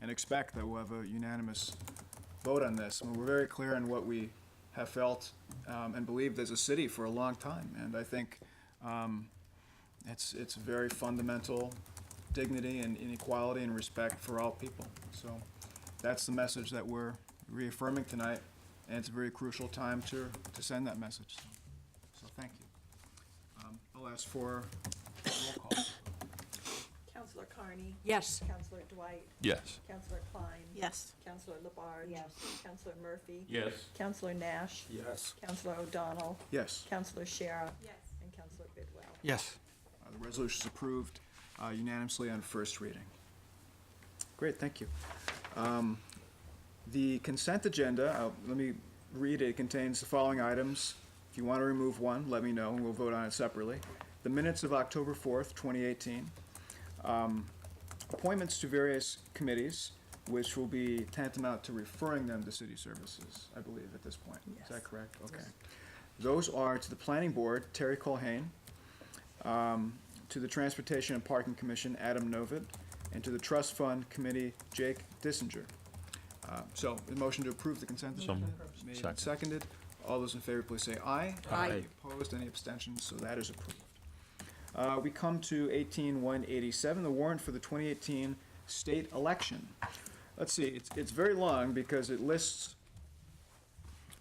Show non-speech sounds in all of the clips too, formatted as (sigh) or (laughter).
and expect that we'll have a unanimous vote on this. And we're very clear on what we have felt um, and believed as a city for a long time. And I think um, it's, it's very fundamental dignity and inequality and respect for all people. So that's the message that we're reaffirming tonight, and it's a very crucial time to, to send that message. So thank you. Um, I'll ask for a roll call. Counselor Carney? Yes. Counselor Dwight? Yes. Counselor Klein? Yes. Counselor Labarge? Yes. Counselor Murphy? Yes. Counselor Nash? Yes. Counselor O'Donnell? Yes. Counselor Shara? Yes. And Counselor Bidwell? Yes. Uh, The resolution is approved uh, unanimously on first reading. Great, thank you. Um, The consent agenda, uh, let me read, it It contains the following items. If you want to remove one, let me know, and we'll vote on it separately. The minutes of October 4th, 2018. Um, Appointments to various committees, which will be tantamount to referring them to city services, I believe, at this point. Is that correct? Okay. Those are to the planning board, Terry Colhane, um, to the Transportation and Parking Commission, Adam Novit, and to the Trust Fund Committee, Jake Dissinger. Uh, So, the motion to approve the consent So agenda made and Second. seconded. All those in favor, please say aye. Aye. Any Opposed, any abstentions, so that is approved. Uh, We come to eighteen one eighty-seven, the warrant for the twenty eighteen state election. Let's see, it's, it's very long because it lists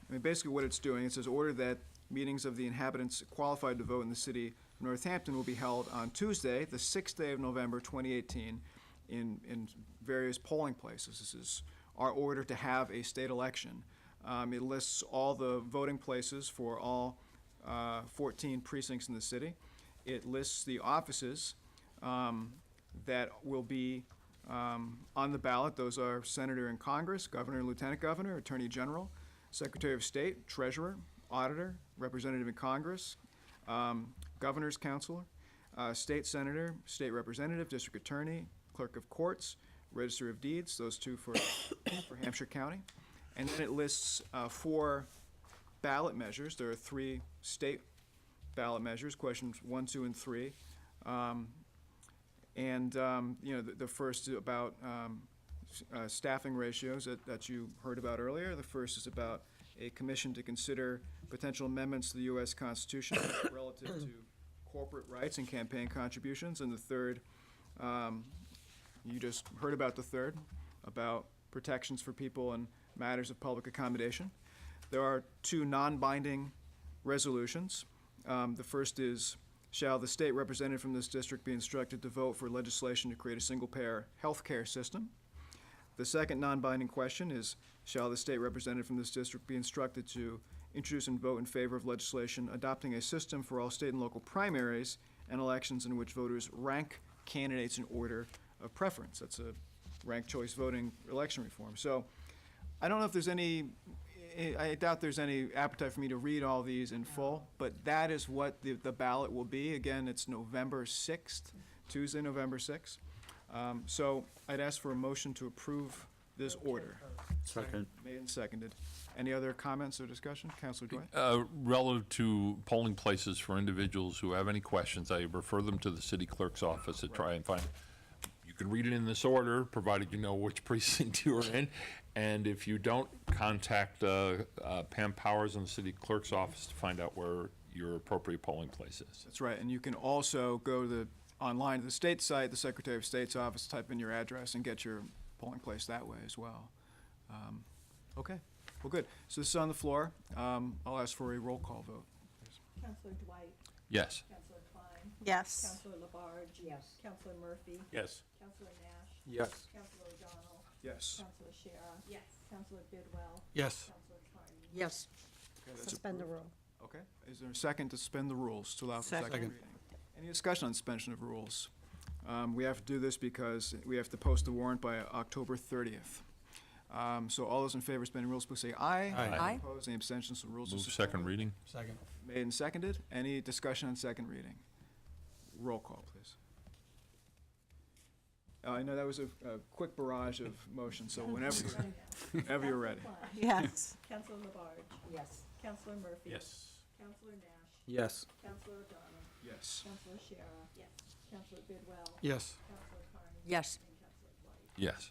I mean, basically what it's doing, it says order that meetings of the inhabitants qualified to vote in the city of Northampton will be held on Tuesday, the sixth day of November, twenty eighteen, in, in various polling places. This is our order to have a state election. Um, it lists all the voting places for all, uh, fourteen precincts in the city. It lists the offices, um, that will be, um, on the ballot. Those are Senator in Congress, Governor, Lieutenant Governor, Attorney General, Secretary of State, Treasurer, Auditor, Representative in Congress, um, Governor's Counselor, uh, State Senator, State Representative, District Attorney, Clerk of Courts, Register of Deeds, those two for, for Hampshire County. And then it lists, uh, four ballot measures. There are three state ballot measures, questions one, two, and three. Um, and, um, you know, the, the first is about, um, s- uh, staffing ratios that, that you heard about earlier. The first is about a commission to consider potential amendments to the US Constitution (coughs) relative to corporate rights and campaign contributions. And the third, um, you just heard about the third, about protections for people in matters of public accommodation. There are two non-binding resolutions. Um, The first is, shall the state representative from this district be instructed to vote for legislation to create a single-payer healthcare system? The second non-binding question is, shall the state representative from this district be instructed to introduce and vote in favor of legislation adopting a system for all state and local primaries and elections in which voters rank candidates in order of preference? That's a ranked choice voting election reform. So I don't know if there's any, I I doubt there's any appetite for me to read all these in full, but that is what the the ballot will be. Again, it's November 6th, Tuesday, November 6th. Um, So I'd ask for a motion to approve this order. Second. Made and seconded. Any other comments or discussion? Counselor Dwight? Uh, Relative to polling places for individuals who have any questions, I refer them to the city clerk's office to try and find. You can read it in this order, provided you know which (laughs) precinct you're in. And if you don't, contact uh, uh, Pam Powers in the city clerk's office to find out where your appropriate polling place is. That's right, and you can also go to the, online to the state site, the Secretary of State's office, type in your address and get your polling place that way as well. Um, Okay, well, good. So this is on the floor. Um, I'll ask for a roll call vote. Counselor Dwight? Yes. Counselor Klein? Yes. Counselor Labarge? Yes. Counselor Murphy? Yes. Counselor Nash? Yes. Counselor O'Donnell? Yes. Counselor Shara? Yes. Counselor Bidwell? Yes. Counselor Carney? Yes. Okay, that's Suspend the rule. approved. Okay, is there a second to suspend the rules to allow for second Second. reading? Any discussion on suspension of rules? Um, We have to do this because we have to post the warrant by October 30th. Um, So all those in favor of suspending rules, please say aye. Aye. Aye. Opposed, any abstentions, the rules are Move suspended. second reading? Second. Made and seconded. Any discussion on second reading? Roll call, please. Uh, I know that was a, a quick barrage of motions, so whenever, you're- whenever you're ready. Counselor Klein? Yes. Counselor Labarge? Yes. Counselor Murphy? Counselor Nash? Yes. Counselor O'Donnell? Yes. Counselor Shara? Yes. Counselor Bidwell? Yes. Counselor Carney? Yes. And Counselor Dwight? Yes.